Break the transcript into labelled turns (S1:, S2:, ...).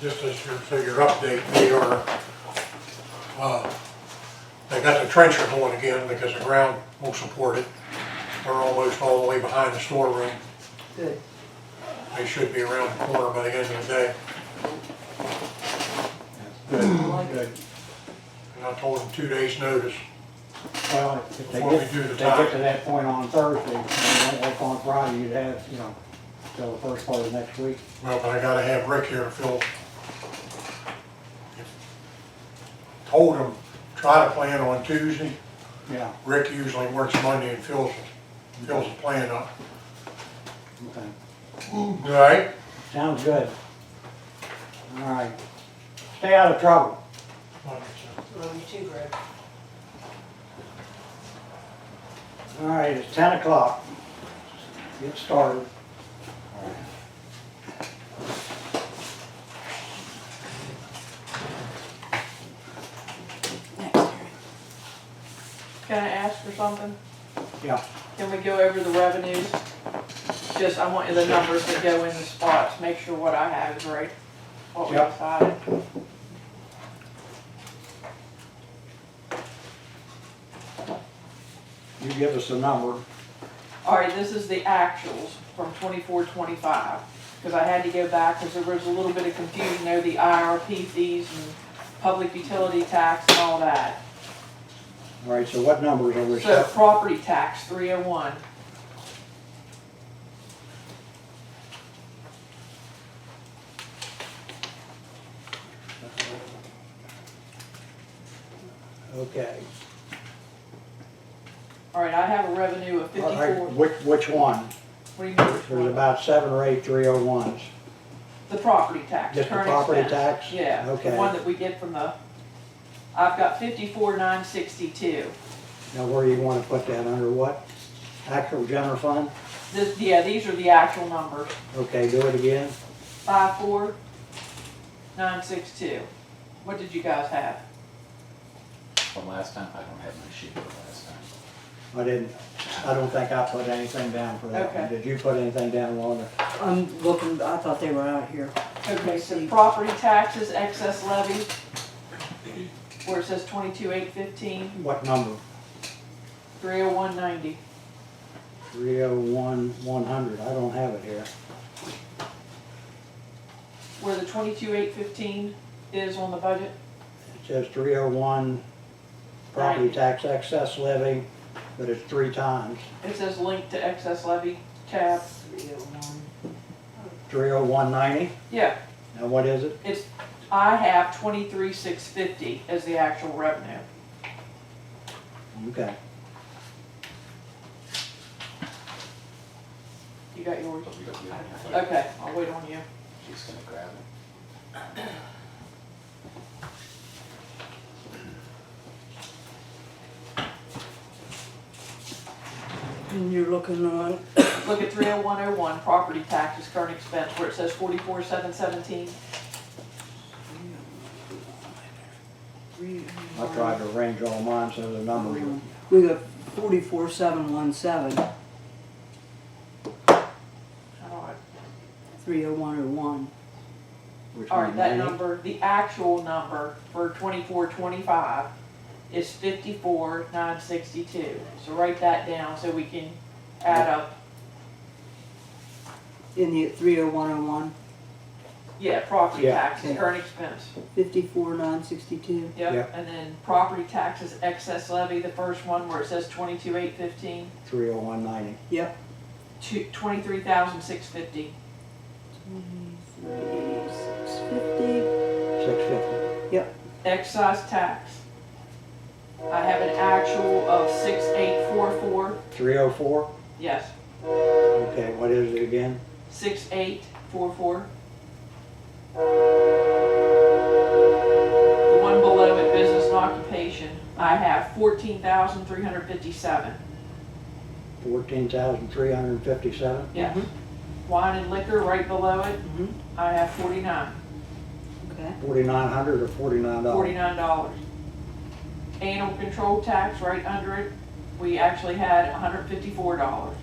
S1: just as your, so your update, they are, uh, they got the trencher going again because the ground won't support it. They're almost all the way behind the storeroom.
S2: Good.
S1: They should be around the corner by the end of the day.
S2: Good, good.
S1: And I told them two days' notice.
S2: Well, if they
S1: Before
S2: get,
S1: we do the
S2: if they get to
S1: time.
S2: that point on Thursday, and they don't work on Friday, you'd have, you know, till the first part of next week.
S1: Well, but I gotta have Rick here to fill. Told him, try to plan on Tuesday.
S2: Yeah,
S1: Rick usually works Monday and fills, fills the plan up.
S2: okay.
S1: All right?
S2: Sounds good. All right. Stay out of trouble.
S3: Love you too, Greg.
S2: All right, it's ten o'clock. Get started.
S4: Can I ask for something?
S2: Yeah,
S4: Can we go over the revenues? Just, I want you the numbers to go in the spots, make sure what I have is right, what we
S2: Yep.
S4: decided.
S2: you give us a number.
S4: All right, this is the actuals from twenty-four, twenty-five, because I had to go back, because there was a little bit of confusion over the IRP fees and public utility tax and all that.
S2: All right, so what numbers are we
S4: So
S2: set?
S4: property tax, three oh one,
S2: Okay.
S4: all right, I have a revenue of
S2: All
S4: fifty-four,
S2: right,
S4: what
S2: which, which one?
S4: do you mean which
S2: There's
S4: one?
S2: about seven or eight three oh ones.
S4: The property tax,
S2: Just the
S4: current
S2: property
S4: expense.
S2: tax?
S4: Yeah, the
S2: Okay.
S4: one that we get from the, I've got fifty-four nine sixty-two.
S2: Now, where you wanna put that, under what? Actual general fund?
S4: This, yeah, these are the actual numbers,
S2: Okay, do it again.
S4: five four nine six two. What did you guys have?
S5: From last time, I don't have my sheet from last time.
S2: I didn't, I don't think I put anything down for that one.
S4: Okay.
S2: Did you put anything down, Wanda?
S3: I'm looking, I thought they were out here.
S4: Okay, so property taxes, excess levy, where it says twenty-two eight fifteen,
S2: What number?
S4: three oh one ninety.
S2: Three oh one, one hundred, I don't have it here.
S4: Where the twenty-two eight fifteen is on the budget,
S2: It says three oh one, property
S4: Ninety.
S2: tax excess levy, but it's three times.
S4: it says linked to excess levy tab. oh
S2: Three oh one ninety,
S4: Yeah,
S2: now what is it?
S4: it's, I have twenty-three six fifty as the actual revenue.
S2: Okay,
S4: You got yours?
S5: But we don't- we don't have it.
S4: Okay, I'll wait on you.
S5: She's gonna grab it.
S3: And you're looking on,
S4: Look at three oh one oh one, property taxes, current expense, where it says forty-four seven seventeen.
S2: I tried to arrange all mine so the numbers are
S3: we got forty-four, seven, one, seven,
S4: I don't know.
S3: three oh one oh one.
S2: Which
S4: All
S2: one,
S4: right, that
S2: 90?
S4: number, the actual number for twenty-four twenty-five is fifty-four nine sixty-two. So write that down so we can add up,
S3: In the three oh one oh one,
S4: yeah, property
S2: Yeah.
S4: taxes, current expense.
S3: fifty-four, nine, sixty-two.
S4: Yep,
S2: Yeah.
S4: and then property taxes, excess levy, the first one where it says twenty-two eight fifteen,
S2: Three oh one ninety.
S3: Yep.
S4: two, twenty-three thousand six fifty.
S3: Six fifty.
S2: Six fifty.
S4: Excise tax. I have an actual of six eight four four,
S2: Three oh four.
S4: yes,
S2: okay, what is it again?
S4: six eight four four. The one below it, business and occupation, I have fourteen thousand three hundred fifty-seven,
S2: Fourteen thousand three hundred and fifty-seven?
S3: Mm-hmm.
S4: yes. Wine and liquor, right below it,
S3: Mhm.
S4: I have forty-nine.
S3: Okay.
S2: Forty-nine hundred or forty-nine dollars?
S4: forty-nine dollars. Animal control tax right under it, we actually had hundred fifty-four dollars.